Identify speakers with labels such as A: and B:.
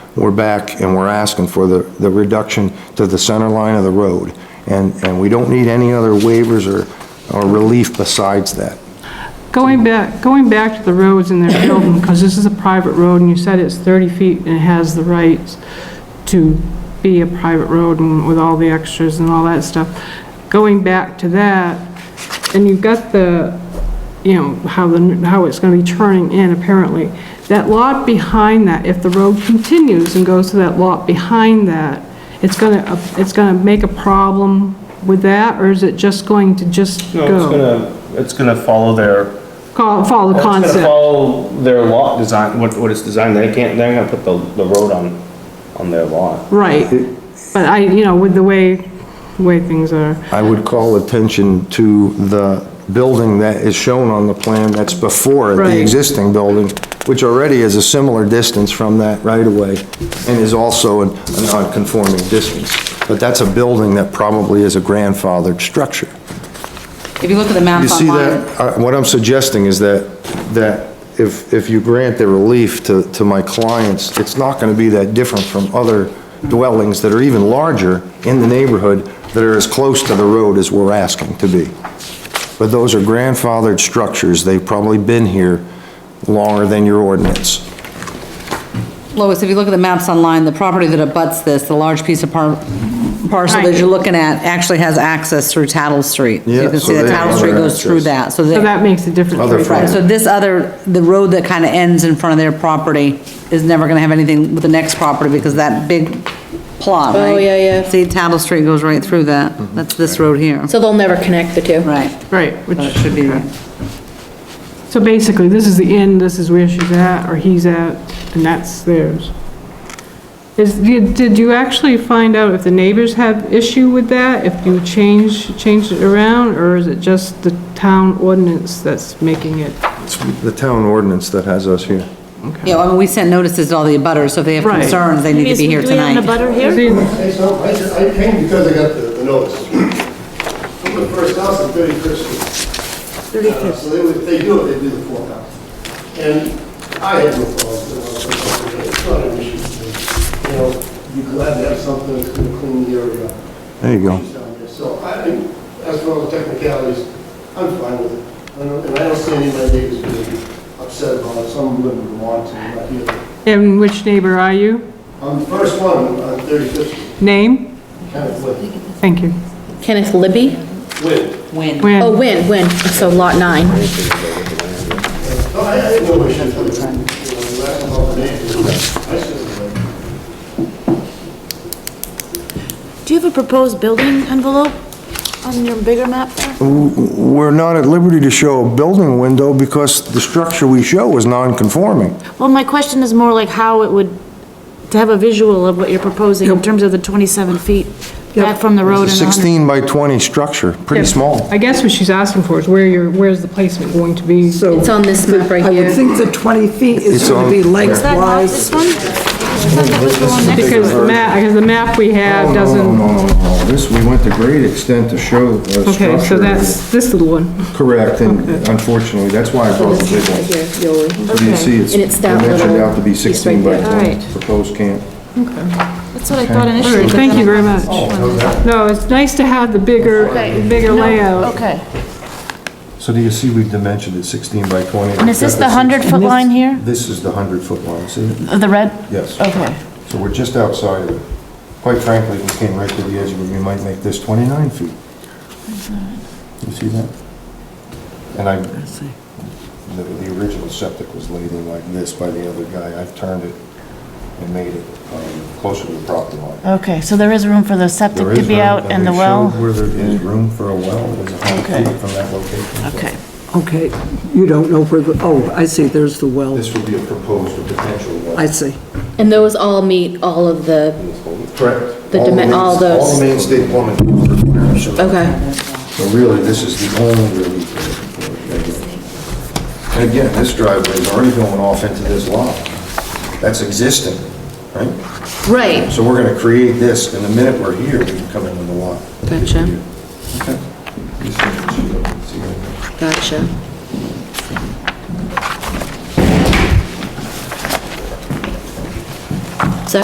A: we're back and we're asking for the, the reduction to the center line of the road. And, and we don't need any other waivers or, or relief besides that.
B: Going back, going back to the roads in their building, because this is a private road, and you said it's 30 feet and it has the rights to be a private road and with all the extras and all that stuff. Going back to that, and you've got the, you know, how the, how it's gonna be turning in apparently. That lot behind that, if the road continues and goes to that lot behind that, it's gonna, it's gonna make a problem with that, or is it just going to just
C: No,
B: go?
C: it's gonna, it's gonna follow their.
B: Call- Follow the
C: It's gonna
B: concept.
C: follow their lot design, what, what it's designed, they can't, they're gonna put the, the road on, on their lot.
B: Right, but I, you know, with the way, the way things are,
A: I would call attention to the building that is shown on the plan that's before it,
B: Right.
A: the existing building, which already is a similar distance from that right-of-way and is also an- a non-conforming distance. But that's a building that probably is a grandfathered structure.
D: If you look at the
A: You
D: map
A: see
D: online,
A: that? Uh, What I'm suggesting is that, that if, if you grant the relief to, to my clients, it's not gonna be that different from other dwellings that are even larger in the neighborhood that are as close to the road as we're asking to be. But those are grandfathered structures, they've probably been here longer than your ordinance.
D: Lois, if you look at the maps online, the property that abuts this, the large piece of par- parcel that
B: Right.
D: you're looking at, actually has access through Tattle Street. So
A: Yeah,
D: You can
A: so
D: see that
A: they
D: Tattle
A: have
D: Street
A: other
D: goes through that,
A: access.
D: so
B: so
D: that,
B: that makes a difference.
A: Other
B: right
D: right,
B: there.
D: so this other, the road that kind of ends in front of their property is never gonna have anything with the next property because that big plot, right?
E: Oh, yeah, yeah.
D: See, Tattle Street goes right through that,
A: Mm-hmm.
D: that's this road here,
E: So they'll never connect the two?
D: right,
B: Right, which
D: that should be there.
B: So basically, this is the end, this is where she's at, or he's at, and that's theirs. Is, did did you actually find out if the neighbors have issue with that? If you change, changed it around, or is it just the town ordinance that's making it?
A: It's the town ordinance that has us here.
D: Yeah, I mean, we sent notices to all the abutters, so if they have
B: Right.
D: concerns, they need to be here tonight.
E: Do we have a butter here?
F: Hey, so I just- I came because I got the the notice. I'm the first house on 31st Street. 31st. Uh, So they would, they do it, they do the fourth house. And I had no problems with it. It's not an issue. to me. You know, you're glad to have something that's going to clean the area up.
A: There you go.
F: issues down there. So I, think, as for all the technicalities, I'm fine with it. I don't- And I don't see any of my neighbors being upset about it. Some of them want to, not the other.
B: And which neighbor are you?
F: I'm the first one on 35th Street,
B: Name?
F: kind of with,
B: Thank you.
E: Kenneth Libby?
F: with.
D: When?
B: When?
E: Oh, Win, Win, so lot nine.
F: No, I I have no issue with it. You know, you ask about the neighbors, I said, like,
G: Do you have a proposed building envelope on your bigger map there?
A: We're not at liberty to show a building window because the structure we show is non-conforming.
G: Well, my question is more like how it would, to have a visual of what you're proposing in terms of the 27 feet back from the road and
A: It's a
G: 100.
A: 16 by 20 structure, pretty small.
B: I guess what she's asking for is where your, where's the placement going to be?
H: So
E: It's on this map right
H: I would
E: here.
H: think the 20 feet
A: It's
H: is going
A: on-
H: to be
G: Is that not
H: lengthwise.
G: this one? I thought that was the one next to it.
B: Because the map, because the map we have
A: Oh, No,
B: doesn't,
A: no, no, no, no. This, we went to great extent to show the structure.
B: okay, so that's this little one.
A: Correct, and unfortunately, that's why I brought the big one.
E: Here, Yoli.
A: So you see, it's
E: And it's that
A: dimensioned
E: little
A: out to be
E: piece right
A: 16 by
E: there.
A: 20,
E: Alright.
A: proposed camp.
G: That's what I thought
B: All
G: initially.
B: right,
G: but
B: Thank
G: then
B: you very
G: I-
B: much.
A: Oh,
B: No, it's nice to have the bigger,
G: Okay.
B: bigger layout.
G: Okay.
A: So do you see we've dimensioned it 16 by 20?
G: And is this the 100-foot line here?
A: This is the 100-foot line, see? it?
G: The red?
A: Yes.
G: Okay.
A: So we're just outside of it. Quite frankly, if we came right to the edge of it, we might make this 29 feet. You see that? And I, the, the original septic was laid in like this by the other guy. I've turned it and made it um, closer to the property line.
I: Okay, so there is room for the septic
A: There
I: to
A: is
I: be
A: room,
I: out and the
A: they showed
I: well?
A: Where there is room for a well, there's 100
I: Okay.
A: feet from that location.
I: Okay.
H: Okay, you don't know where, the oh, I see, there's the well.
A: This would be a proposed or potential well.
H: I see.
E: And those all meet all of the,
A: Correct.
E: The
A: All the
E: dimen-
A: main-
E: all those-
A: All the main state plumbing requirements.
E: okay.
A: So really, this is the only relief we're looking for. And again, this driveway is already going off into this lot. That's existing, right?
E: Right,
A: So we're gonna create this, and the minute we're here, we can come into the lot.
E: Gotcha.
A: Okay.
E: gotcha.